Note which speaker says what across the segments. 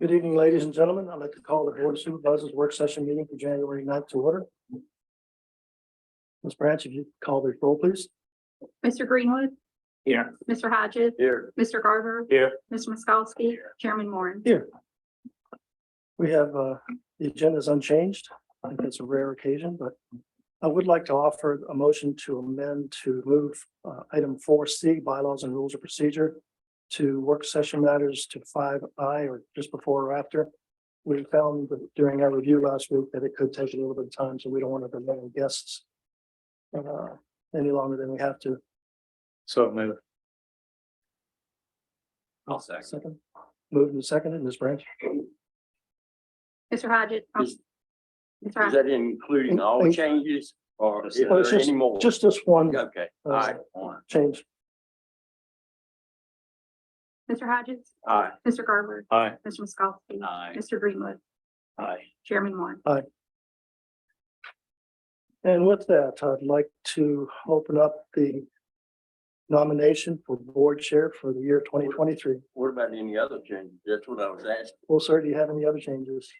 Speaker 1: Good evening, ladies and gentlemen. I'd like to call the Board of Supervisors Work Session Meeting for January 9th to order. Ms. Branch, if you call the roll, please.
Speaker 2: Mr. Greenwood,
Speaker 1: Here.
Speaker 2: Mr. Hodges,
Speaker 1: Here.
Speaker 2: Mr. Garver.
Speaker 1: Here.
Speaker 2: Mr. Miskowski,
Speaker 1: Here.
Speaker 2: Chairman Moore.
Speaker 1: We have, uh, the agenda is unchanged. I think that's a rare occasion, but I would like to offer a motion to amend to move, uh, item four C, bylaws and rules of procedure to work session matters to five I or just before or after. We found that during our review last week that it could take a little bit of time, so we don't want to delay our guests uh, any longer than we have to.
Speaker 3: So move.
Speaker 1: I'll second. Moved and seconded, Ms. Branch.
Speaker 2: Mr. Hodges. um,
Speaker 4: Is-
Speaker 2: Mr.
Speaker 4: Is
Speaker 2: Hodges,
Speaker 4: that including all
Speaker 1: Thank-
Speaker 4: changes or is
Speaker 1: Well, it's
Speaker 4: there
Speaker 1: just-
Speaker 4: any more?
Speaker 1: Just this one
Speaker 4: Okay, all right, all
Speaker 1: change.
Speaker 2: Mr. Hodges,
Speaker 4: right,
Speaker 2: Mr. Garver,
Speaker 3: Aye.
Speaker 2: Mr. Miskowski,
Speaker 4: aye,
Speaker 2: Mr. Greenwood,
Speaker 4: aye.
Speaker 2: Chairman Moore.
Speaker 1: And with that, I'd like to open up the nomination for board chair for the year twenty twenty-three.
Speaker 4: What about any other changes? That's what I was asking.
Speaker 1: Well, sir, do you have any other changes?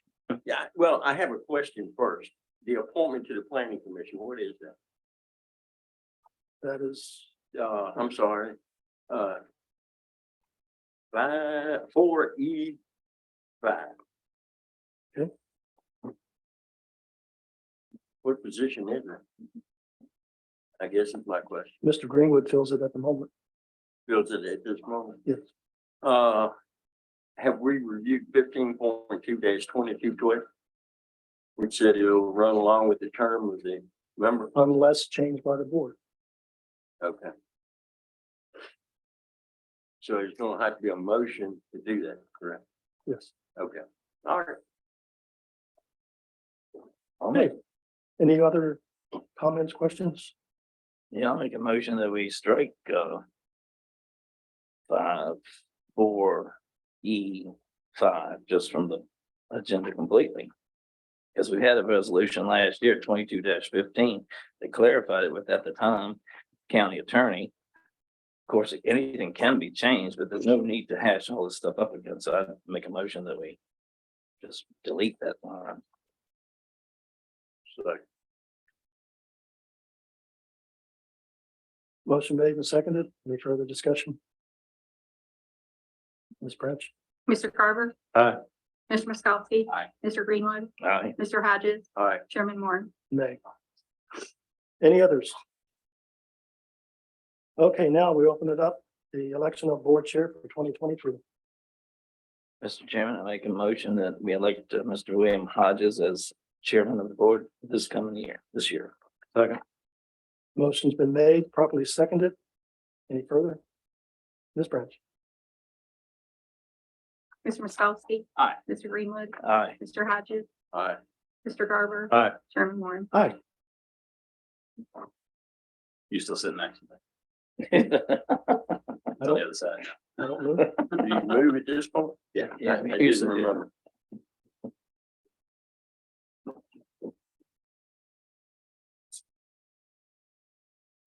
Speaker 4: Yeah, well, I have a question first. The appointment to the planning commission, what is that?
Speaker 1: That is,
Speaker 4: Uh, I'm sorry, uh. Five, four E five.
Speaker 1: Okay.
Speaker 4: What position is it? I guess is my question.
Speaker 1: Mr. Greenwood fills it at the moment.
Speaker 4: Feels it at this moment.
Speaker 1: Yes.
Speaker 4: Uh, have we reviewed fifteen point two dash twenty-two twelve? Which said it'll run along with the term of the member,
Speaker 1: unless changed by the board.
Speaker 4: okay. So it's gonna have to be a motion to do that, correct?
Speaker 1: Yes.
Speaker 4: Okay, all right. I'll
Speaker 1: Okay. Any other comments, questions?
Speaker 3: Yeah, I'll make a motion that we strike, uh. Five, four, E, five, just from the agenda completely. Because we had a resolution last year, twenty-two fifteen, that clarified it with at the time county attorney. Of course, anything can be changed, but there's no need to hash all this stuff up again, so I'd make a motion that we. Just delete that line.
Speaker 4: second.
Speaker 1: Motion made and seconded. Any further discussion? Ms. Branch?
Speaker 2: Mr. Garver.
Speaker 3: Aye.
Speaker 2: Mr. Miskowski.
Speaker 4: Aye.
Speaker 2: Mr. Greenwood,
Speaker 3: Aye.
Speaker 2: Mr. Hodges,
Speaker 4: All right,
Speaker 2: Chairman Moore.
Speaker 1: Nay. Any others? Okay, now we open it up, the election of board chair for twenty twenty-three.
Speaker 3: Mr. Chairman, I make a motion that we elect uh, Mr. William Hodges as chairman of the board this coming year, this year. Second.
Speaker 1: Motion's been made, properly seconded. Any further? Ms. Branch?
Speaker 2: Mr. Miskowski.
Speaker 4: Aye.
Speaker 2: Mr. Greenwood,
Speaker 3: Aye.
Speaker 2: Mr. Hodges,
Speaker 4: all right.
Speaker 2: Mr. Garver.
Speaker 3: Aye.
Speaker 2: Chairman Moore.
Speaker 1: Aye.
Speaker 3: You still sitting next to me?
Speaker 1: I don't-
Speaker 3: other side.
Speaker 1: I don't know.
Speaker 4: Do you move at this point?
Speaker 3: Yeah.
Speaker 4: I I didn't remember.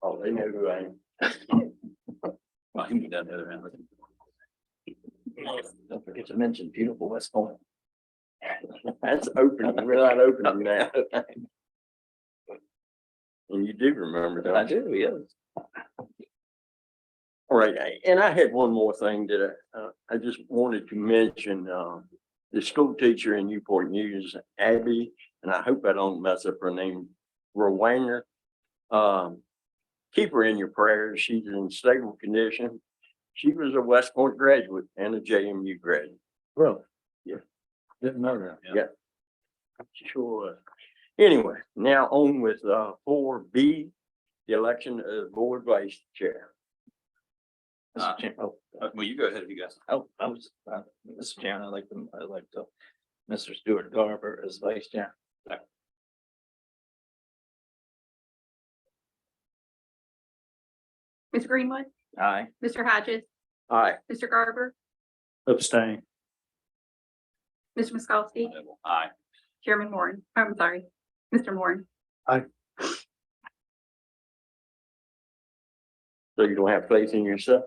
Speaker 4: Oh, they know who I am.
Speaker 3: Well, he moved down the other end. Don't forget to mention beautiful West Point.
Speaker 4: That's open, we're not opening now. And you do remember
Speaker 3: I
Speaker 4: that.
Speaker 3: do, yes.
Speaker 4: All right, I- and I had one more thing that I, uh, I just wanted to mention, uh, the school teacher in Newport News, Abby, and I hope I don't mess up her name, Rowanger. Um, keep her in your prayers. She's in stable condition. She was a West Point graduate and a JMU graduate.
Speaker 1: Bro,
Speaker 4: Didn't know that. Yeah. Sure. was. Anyway, now on with, uh, four B, the election of board vice chair.
Speaker 3: Mr. Chair- oh,
Speaker 5: Well, you go ahead if you guys.
Speaker 3: Oh, I was, uh, Mr. Chairman, I'd like to, I'd like to, Mr. Stuart Garber as vice chair.
Speaker 2: Mr. Greenwood,
Speaker 3: Aye.
Speaker 2: Mr. Hodges,
Speaker 4: Aye.
Speaker 2: Mr. Garver,
Speaker 1: abstain.
Speaker 2: Mr. Miskowski,
Speaker 5: Aye.
Speaker 2: Chairman Moore. I'm sorry, Mr. Moore.
Speaker 4: So you don't have faith in yourself?